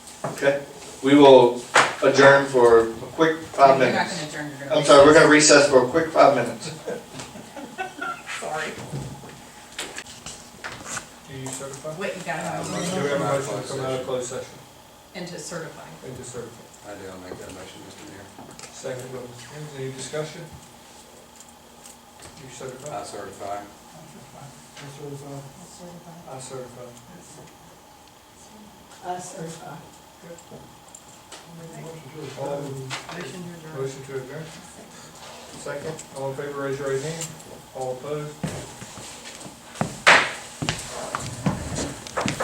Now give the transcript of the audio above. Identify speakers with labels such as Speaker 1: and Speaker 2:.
Speaker 1: Okay, we will adjourn for a quick five
Speaker 2: You're not
Speaker 1: minutes.
Speaker 2: gonna adjourn, you're gonna.
Speaker 1: I'm sorry, we're gonna recess for a quick five minutes.
Speaker 2: Sorry.
Speaker 3: Do you certify?
Speaker 2: Wait, you
Speaker 4: Uh,
Speaker 2: gotta have
Speaker 3: Do we
Speaker 2: a
Speaker 3: have
Speaker 2: motion
Speaker 3: a motion to come out of closed session
Speaker 2: and to certify.
Speaker 3: and to certify?
Speaker 5: I do, I'll make that motion, Mr. Mayor.
Speaker 3: Second, by Mr. Sims, any discussion? Do you certify?
Speaker 5: I certify.
Speaker 3: I certify. I certify.
Speaker 4: Us or uh, five.
Speaker 3: All
Speaker 2: Motion
Speaker 3: in-
Speaker 2: to adjourn.
Speaker 3: Motion to adjourn? Second, all in favor, raise your right hand. All opposed?